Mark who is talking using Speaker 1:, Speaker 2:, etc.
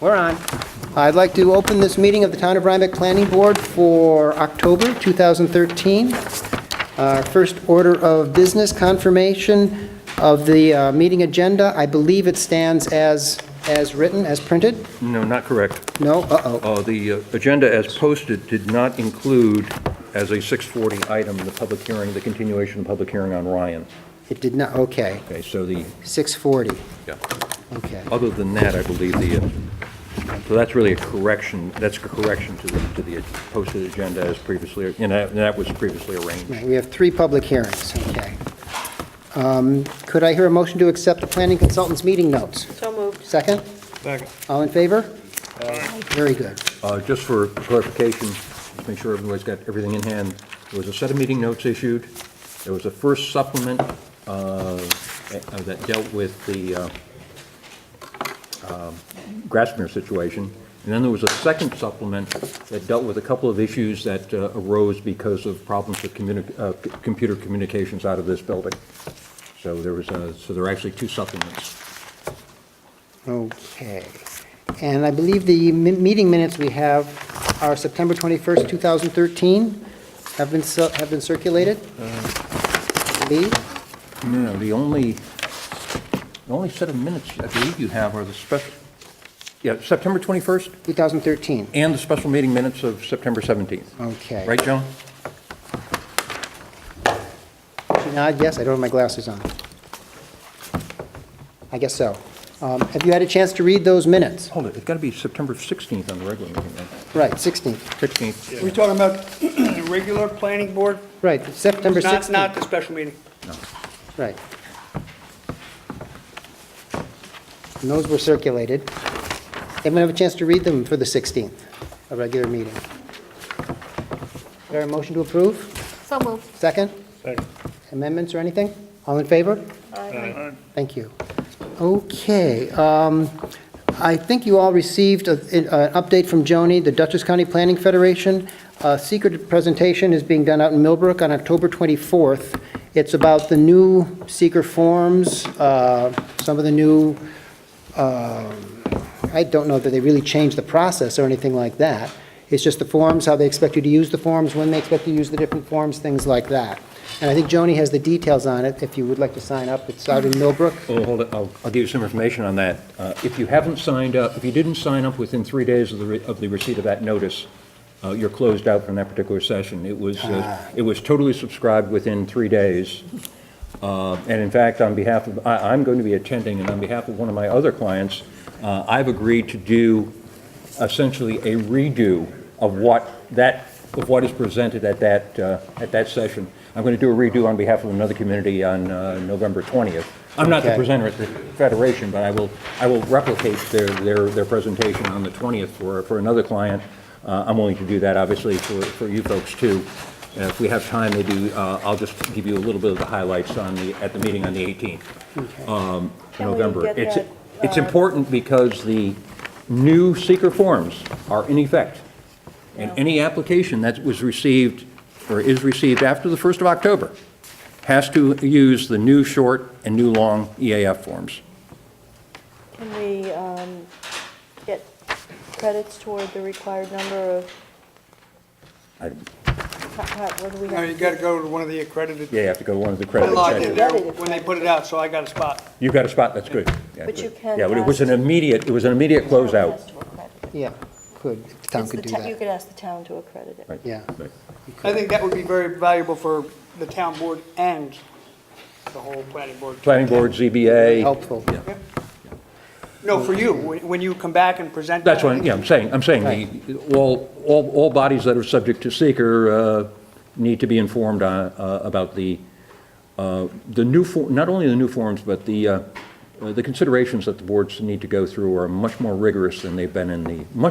Speaker 1: We're on. I'd like to open this meeting of the Town of Rhinebeck Planning Board for October 2013. Our Uh, first order of business, confirmation of the uh, meeting agenda. I believe it stands as, as written, as printed?
Speaker 2: No, not correct.
Speaker 1: No? Uh-oh.
Speaker 2: Uh, The uh, agenda as posted did not include, as a 6:40 item, the public hearing, the continuation of the public hearing on Ryan.
Speaker 1: It did not, okay.
Speaker 2: Okay, so the,
Speaker 1: 6:40,
Speaker 2: yeah.
Speaker 1: okay.
Speaker 2: other than that, I believe the, uh, so that's really a correction, that's a correction to the, to the posted agenda as previously, and that and that was previously arranged.
Speaker 1: Right, We have three public hearings, okay. Um, Could I hear a motion to accept the planning consultant's meeting notes?
Speaker 3: So moved.
Speaker 1: Second?
Speaker 4: Second.
Speaker 1: All in favor? Very good.
Speaker 2: Uh, Just for clarification, just make sure everybody's got everything in hand, there was a set of meeting notes issued, there was a first supplement uh, uh, that dealt with the uh, um, Grassmere situation, and then there was a second supplement that dealt with a couple of issues that uh, arose because of problems with communi- uh, c- computer communications out of this building. So there was, a- so there are actually two supplements.
Speaker 1: Okay. And I believe the mi- meeting minutes we have are September 21st, 2013, have been, cir- have been circulated?
Speaker 4: Uh.
Speaker 1: Lee?
Speaker 2: No, the only, the only set of minutes I believe you have are the special, yeah, September 21st
Speaker 1: 2013,
Speaker 2: and the special meeting minutes of September 17th.
Speaker 1: okay.
Speaker 2: Right, Joan?
Speaker 1: She nodded yes, I don't have my glasses on. I guess so. Um, Have you had a chance to read those minutes?
Speaker 2: Hold it, it's got to be September 16th on the regular meeting, right?
Speaker 1: Right, 16th,
Speaker 2: 16th.
Speaker 4: We talking about regular planning board?
Speaker 1: right, September
Speaker 4: Not,
Speaker 1: 16th.
Speaker 4: not the special meeting.
Speaker 1: Right. And those were circulated. Anyone have a chance to read them for the 16th, a regular meeting? There a motion to approve?
Speaker 3: So moved.
Speaker 1: Second?
Speaker 4: Second.
Speaker 1: Amendments or anything? All in favor?
Speaker 4: Aye.
Speaker 1: Thank you. Okay, um, I think you all received a- an update from Joni, the Dutchess County Planning Federation. A secret presentation is being done out in Millbrook on October 24th. It's about the new seeker forms, uh, some of the new, um, I don't know that they really changed the process or anything like that. It's just the forms, how they expect you to use the forms, when they expect you to use the different forms, things like that. And I think Joni has the details on it, if you would like to sign up. It's out in Millbrook.
Speaker 2: Oh, hold it, I'll, I'll give you some information on that. Uh, If you haven't signed up, if you didn't sign up within three days of the, re- of the receipt of that notice, uh, you're closed out from that particular session. It was, uh, it was totally subscribed within three days. Uh, And in fact, on behalf of, I, I'm going to be attending, and on behalf of one of my other clients, uh, I've agreed to do essentially a redo of what that, of what is presented at that, uh, at that session. I'm going to do a redo on behalf of another community on uh, November 20th. I'm not the
Speaker 1: Okay.
Speaker 2: presenter at the Federation, but I will, I will replicate their, their, their presentation on the 20th for, for another client. Uh, I'm willing to do that, obviously, for, for you folks, too. And If we have time, maybe uh, I'll just give you a little bit of the highlights on the, at the meeting on the 18th.
Speaker 3: Can we
Speaker 2: November.
Speaker 3: get
Speaker 2: It's,
Speaker 3: that, uh,
Speaker 2: it's important because the new seeker forms are in effect. And any application that was received, or is received after the 1st of October, has to use the new short and new long EAF forms.
Speaker 3: Can we um, get credits toward the required number of,
Speaker 2: I-
Speaker 3: how- how- what do we
Speaker 4: No, you
Speaker 3: have?
Speaker 4: gotta go to one of the accredited.
Speaker 2: Yeah, you have to go to one of the
Speaker 4: I
Speaker 2: credit
Speaker 4: logged in
Speaker 2: checks.
Speaker 4: there when they put it out, so I got a spot.
Speaker 2: You got a spot, that's good. Yeah,
Speaker 3: But you
Speaker 2: good.
Speaker 3: can
Speaker 2: Yeah, but it was
Speaker 3: ask-
Speaker 2: an immediate, it was an immediate closeout.
Speaker 3: Ask to accredit.
Speaker 1: Yeah, could, the town
Speaker 3: It's the
Speaker 1: could do
Speaker 3: ta- You
Speaker 1: that.
Speaker 3: could ask the town to accredit it.
Speaker 2: Right.
Speaker 1: Yeah.
Speaker 2: Right.
Speaker 4: I think that would be very valuable for the town board and the whole planning board.
Speaker 2: Planning Board, ZBA.
Speaker 1: Helpful.
Speaker 2: Yeah.
Speaker 4: No, for you, when when you come back and present.
Speaker 2: That's what, yeah, I'm saying, I'm saying, the- all, all, all bodies that are subject to seeker uh, need to be informed on, uh, about the, uh, the new, for- not only the new forms, but the, uh, uh, the considerations that the boards need to go through are much more rigorous than they've been in the, much